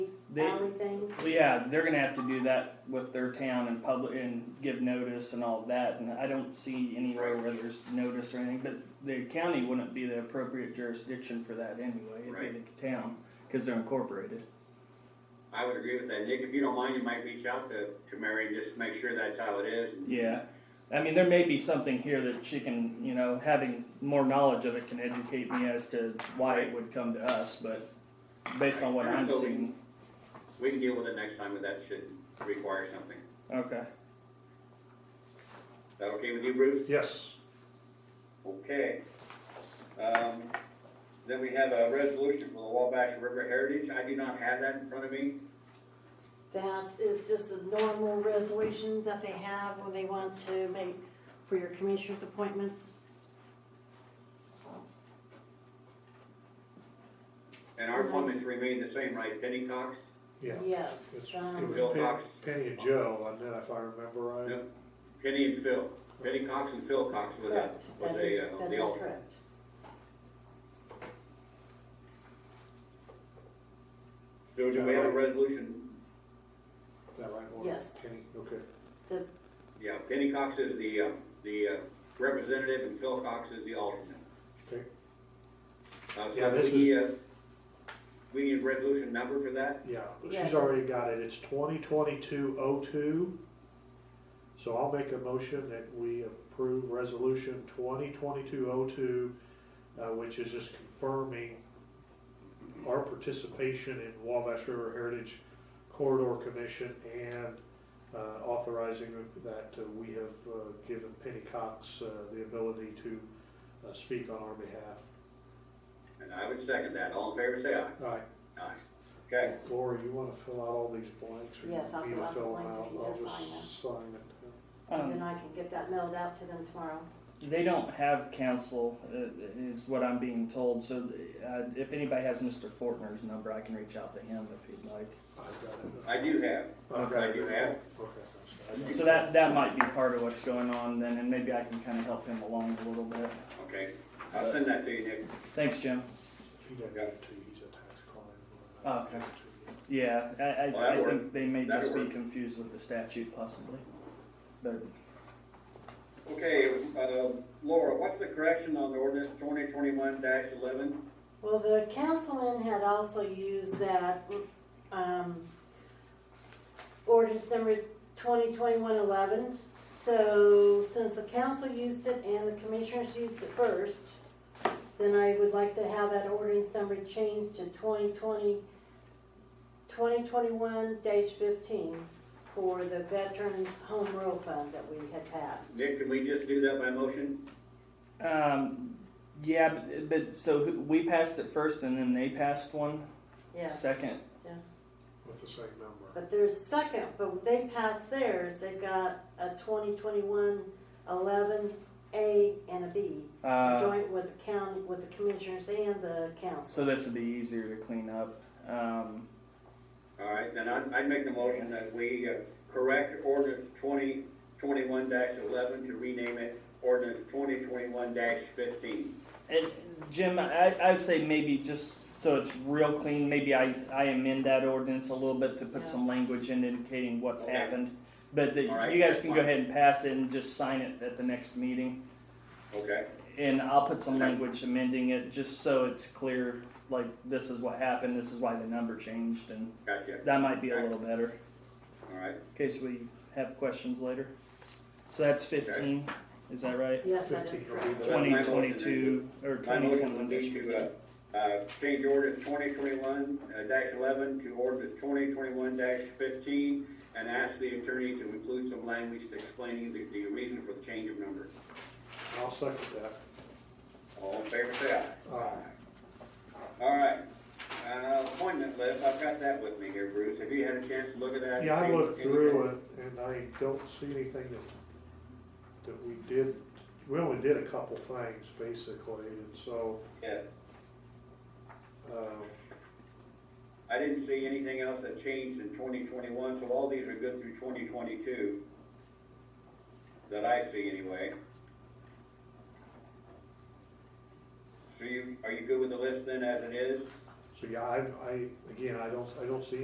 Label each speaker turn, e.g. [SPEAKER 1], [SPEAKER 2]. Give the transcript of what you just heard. [SPEAKER 1] they,
[SPEAKER 2] alley things.
[SPEAKER 1] well, yeah, they're gonna have to do that with their town and public and give notice and all that. And I don't see anywhere where there's notice or anything. But the county wouldn't be the appropriate jurisdiction for that anyway. It'd be the town because they're incorporated.
[SPEAKER 3] I would agree with that. Nick, if you don't mind, you might reach out to, to Mary and just make sure that's how it is.
[SPEAKER 1] Yeah. I mean, there may be something here that she can, you know, having more knowledge of it can educate me as to why it would come to us. But based on what I'm
[SPEAKER 3] So we-
[SPEAKER 1] seeing,
[SPEAKER 3] We can deal with it next time if that should require something.
[SPEAKER 1] okay.
[SPEAKER 3] Is that okay with you, Bruce?
[SPEAKER 4] Yes.
[SPEAKER 3] Okay. Um, then we have a resolution for the Wabash River Heritage. I do not have that in front of me.
[SPEAKER 2] That is just a normal resolution that they have when they want to make for your commissioners' appointments.
[SPEAKER 3] And our appointments remain the same, right? Penny Cox?
[SPEAKER 4] Yeah.
[SPEAKER 2] Yes,
[SPEAKER 4] It's-
[SPEAKER 2] um,
[SPEAKER 4] It
[SPEAKER 3] Bill
[SPEAKER 4] was Penny,
[SPEAKER 3] Cox.
[SPEAKER 4] Penny and Joe, wasn't it, if I remember right?
[SPEAKER 3] Yep. Penny and Phil. Penny Cox and Phil Cox was a,
[SPEAKER 2] correct,
[SPEAKER 3] was
[SPEAKER 2] that
[SPEAKER 3] a,
[SPEAKER 2] is,
[SPEAKER 3] uh,
[SPEAKER 2] that
[SPEAKER 3] the
[SPEAKER 2] is
[SPEAKER 3] alternate.
[SPEAKER 2] correct.
[SPEAKER 3] So do we have a resolution?
[SPEAKER 4] Is that right? Lauren?
[SPEAKER 2] Yes.
[SPEAKER 4] Penny, okay.
[SPEAKER 2] The,
[SPEAKER 3] Yeah, Penny Cox is the, uh, the uh, representative and Phil Cox is the alternate.
[SPEAKER 4] Okay.
[SPEAKER 3] Uh,
[SPEAKER 4] Yeah,
[SPEAKER 3] so
[SPEAKER 4] this
[SPEAKER 3] we, uh, we need resolution number for that?
[SPEAKER 4] Yeah, but she's
[SPEAKER 2] Yes.
[SPEAKER 4] already got it. It's twenty twenty-two oh two. So I'll make a motion that we approve resolution twenty twenty-two oh two, uh, which is just confirming our participation in Wabash River Heritage Corridor Commission and, uh, authorizing that uh, we have, uh, given Penny Cox, uh, the ability to, uh, speak on our behalf.
[SPEAKER 3] And I would second that. All in favor, say aye.
[SPEAKER 4] All right,
[SPEAKER 3] Aye. Okay,
[SPEAKER 4] Laura, you wanna fill out all these blanks? or
[SPEAKER 2] Yes, I'll
[SPEAKER 4] me
[SPEAKER 2] fill
[SPEAKER 4] to
[SPEAKER 2] out the
[SPEAKER 4] them
[SPEAKER 2] blanks if
[SPEAKER 4] out?
[SPEAKER 2] you
[SPEAKER 4] I'll
[SPEAKER 2] just
[SPEAKER 4] sign it.
[SPEAKER 2] and
[SPEAKER 1] Um,
[SPEAKER 2] then I can get that mailed out to them tomorrow.
[SPEAKER 1] They don't have counsel, uh, is what I'm being told. So uh, if anybody has Mr. Fortner's number, I can reach out to him if he'd like.
[SPEAKER 4] I've got it.
[SPEAKER 3] I do have.
[SPEAKER 4] I've got
[SPEAKER 3] I
[SPEAKER 4] it.
[SPEAKER 3] do have.
[SPEAKER 4] Okay.
[SPEAKER 1] So that that might be part of what's going on then, and maybe I can kind of help him along a little bit.
[SPEAKER 3] Okay, I'll send that to you, Nick.
[SPEAKER 1] Thanks, Jim.
[SPEAKER 4] He doesn't get it to you, he's a tax client.
[SPEAKER 1] Oh, okay. Yeah, I, I,
[SPEAKER 3] Well, that'll
[SPEAKER 1] I think they may
[SPEAKER 3] That'll
[SPEAKER 1] just be
[SPEAKER 3] work.
[SPEAKER 1] confused with the statute possibly. But
[SPEAKER 3] Okay, uh, Laura, what's the correction on the ordinance twenty twenty-one eleven?
[SPEAKER 2] Well, the councilman had also used that, um, ordinance number twenty twenty-one eleven. So since the council used it and the commissioners used it first, then I would like to have that ordinance number changed to 2020 2021 fifteen for the Veterans Home Rule Fund that we had passed.
[SPEAKER 3] Nick, can we just do that by motion?
[SPEAKER 1] um, yeah, but, but so who- we passed it first, and then they passed one
[SPEAKER 2] Yes,
[SPEAKER 1] second.
[SPEAKER 2] yes.
[SPEAKER 4] With the same number.
[SPEAKER 2] But their second, but they passed theirs, they've got a 2021 11 A and a B,
[SPEAKER 1] Uh,
[SPEAKER 2] joint with the county, with the commissioners and the council.
[SPEAKER 1] so this would be easier to clean up. Um,
[SPEAKER 3] All right, then I'd, I'd make the motion that we uh, correct ordinance twenty twenty-one eleven to rename it ordinance twenty twenty-one fifteen.
[SPEAKER 1] And Jim, I, I'd say maybe just so it's real clean, maybe I, I amend that ordinance a little bit to put
[SPEAKER 2] Yeah.
[SPEAKER 1] some language in indicating what's
[SPEAKER 3] Okay.
[SPEAKER 1] happened. But that
[SPEAKER 3] All right,
[SPEAKER 1] you guys
[SPEAKER 3] that's
[SPEAKER 1] can go
[SPEAKER 3] fine.
[SPEAKER 1] ahead and pass it and just sign it at the next meeting.
[SPEAKER 3] Okay,
[SPEAKER 1] And I'll put some
[SPEAKER 3] Okay.
[SPEAKER 1] language amending it just so it's clear, like, this is what happened, this is why the number changed, and
[SPEAKER 3] gotcha.
[SPEAKER 1] that might be a
[SPEAKER 3] Okay.
[SPEAKER 1] little better
[SPEAKER 3] All right,
[SPEAKER 1] in case we have questions later. So that's 15, is that right?
[SPEAKER 2] Yes, that is
[SPEAKER 4] 15 will be
[SPEAKER 2] correct.
[SPEAKER 4] the-
[SPEAKER 3] That's my motion.
[SPEAKER 1] 2022 or
[SPEAKER 3] my
[SPEAKER 1] 2021.
[SPEAKER 3] motion would be to, uh, uh, change ordinance twenty twenty-one uh, eleven to ordinance twenty twenty-one fifteen and ask the attorney to include some language explaining the, the reason for the change of number.
[SPEAKER 4] I'll second that.
[SPEAKER 3] All in favor, say aye.
[SPEAKER 4] Aye.
[SPEAKER 3] All right, uh, appointment list, I've got that with me here, Bruce, have you had a chance to look at that?
[SPEAKER 4] Yeah, I
[SPEAKER 3] Change
[SPEAKER 4] looked through
[SPEAKER 3] anything?
[SPEAKER 4] it and I don't see anything that, that we did, we only did a couple things basically, and so,
[SPEAKER 3] Yes,
[SPEAKER 4] um,
[SPEAKER 3] I didn't see anything else that changed in twenty twenty-one, so all these are good through twenty twenty-two. That I see anyway. So you, are you good with the list then as it is?
[SPEAKER 4] so yeah, I, I, again, I don't, I don't see